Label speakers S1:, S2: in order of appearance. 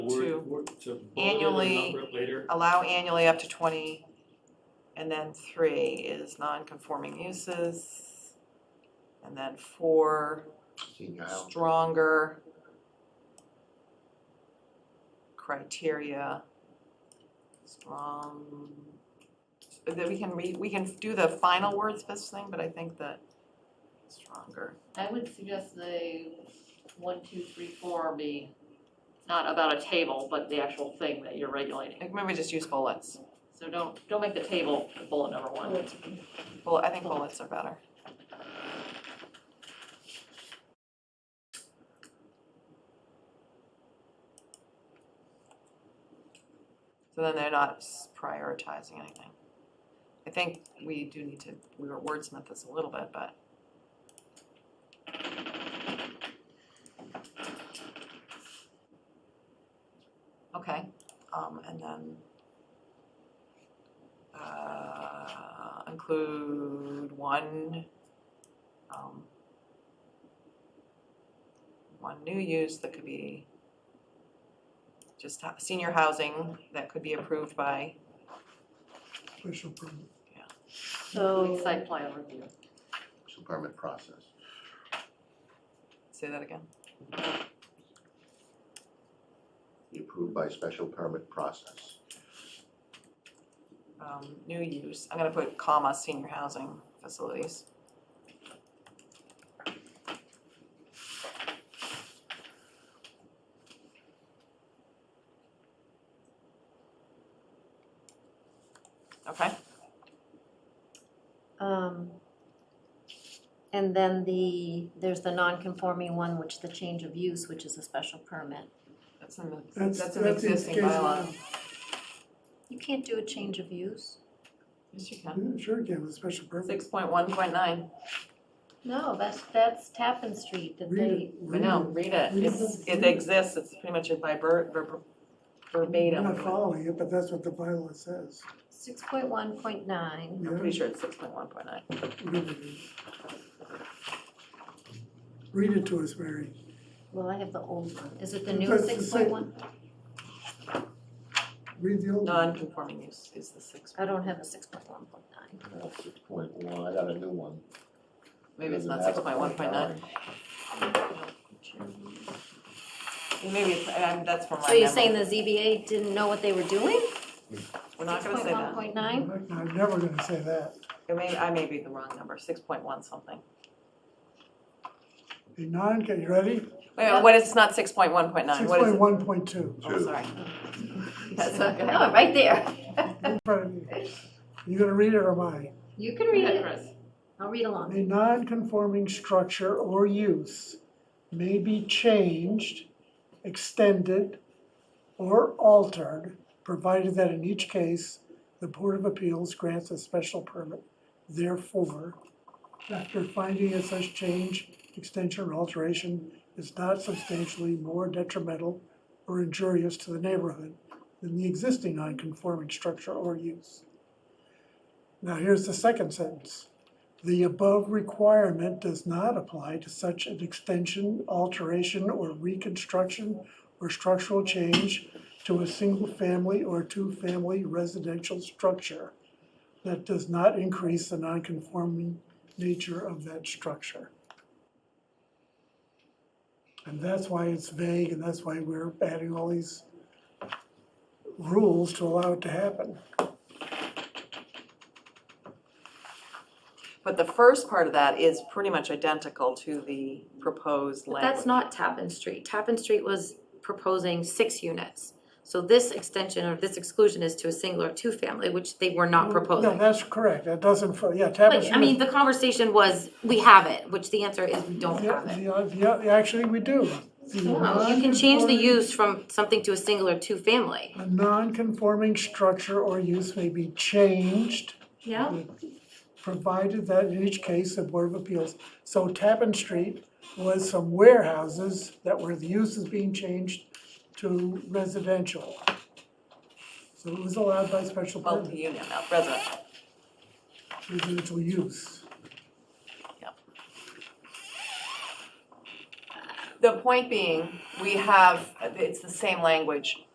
S1: work to bolster the
S2: Annually.
S1: number up later?
S2: allow annually up to twenty, and then three is non-conforming uses. And then four,
S3: senior housing.
S2: stronger criteria, strong. That we can re, we can do the final wordsmith thing, but I think that stronger.
S4: I would suggest the one, two, three, four be not about a table, but the actual thing that you're regulating.
S2: Like, Maybe just use bullets.
S4: So don't, don't make the table bullet number one.
S2: Bullet, I think bullets are better. So then they're not s- prioritizing anything. I think we do need to, we were wordsmith this a little bit, but okay, um, and then uh, include one, um, one new use that could be just ho- senior housing that could be approved by,
S5: Special permit.
S6: So,
S4: Site plan review.
S3: special permit process.
S2: say that again,
S3: Be approved by special permit process.
S2: um, new use, I'm gonna put comma, senior housing facilities. Okay,
S6: um, and then the, there's the non-conforming one, which the change of use, which is a special permit.
S2: that's in the,
S5: That's-
S2: that's an
S5: that's in
S2: existing
S5: case of-
S2: bylaw,
S6: You can't do a change of use?
S2: yes, you can,
S5: Yeah, Sure can, with special permit.
S2: six point one point nine,
S6: No, that's, that's Tappan Street that
S5: Read
S6: they,
S5: it,
S2: I
S5: Mm-hmm. read
S2: know,
S5: it.
S2: read it, it's, it exists, it's pretty much by ver- ver- verbatim.
S5: I'm not following it, but that's what the bylaw says.
S6: six point one point nine,
S2: I'm pretty sure it's six point one point nine.
S5: Read it. Read it to us, Mary.
S6: well, I have the old one, is it the new
S5: That's the
S6: six point one?
S5: Read the old one.
S2: Non-conforming use is the six,
S6: I don't have a six point one point nine.
S3: Six point one, I got a new one.
S2: maybe it's
S3: Doesn't
S2: not
S3: have
S2: six point one point nine. Maybe it's, I- I'm, that's from my
S6: So you're
S2: memory.
S6: saying the ZBA didn't know what they were doing?
S2: We're not gonna say
S6: Six point one
S2: that.
S6: point nine?
S5: I'm never gonna say that.
S2: It may, I may be the wrong number, six point one something.
S5: A non, get you ready?
S2: Wait, what is, it's not six point one point nine,
S5: Six
S2: what is
S5: point
S2: it?
S5: one point two.
S2: Oh,
S3: Two.
S2: sorry. That's okay.
S6: Oh, right there.
S5: You gonna read it or am I?
S6: You can read
S4: Yeah,
S6: it,
S4: Chris.
S6: I'll read along.
S5: A non-conforming structure or use may be changed, extended, or altered, provided that in each case, the Board of Appeals grants a special permit. Therefore, after finding that such change, extension, or alteration is not substantially more detrimental or injurious to the neighborhood than the existing non-conforming structure or use. Now, here's the second sentence. The above requirement does not apply to such an extension, alteration, or reconstruction or structural change to a single-family or two-family residential structure that does not increase the nonconforming nature of that structure. And that's why it's vague, and that's why we're adding all these rules to allow it to happen.
S2: But the first part of that is pretty much identical to the proposed
S6: But
S2: language.
S6: that's not Tappan Street. Tappan Street was proposing six units. So this extension or this exclusion is to a single or two-family, which they were not
S5: Mm, No,
S6: proposing.
S5: that's correct, that doesn't, yeah,
S6: But,
S5: tapestry.
S6: I mean, the conversation was, we have it, which the answer is we don't
S5: Yeah,
S6: have it.
S5: yeah, yeah, actually, we do. The
S6: No, You can change the
S5: nonconforming-
S6: use from something to a single or two-family.
S5: A non-conforming structure or use may be changed,
S6: Yeah.
S5: provided that in each case, the Board of Appeals. So Tappan Street was some warehouses that were, the use is being changed to residential. So it was allowed by special permit,
S2: Multi-unit, not residential.
S5: residential use.
S2: The point being, we have, it's the same language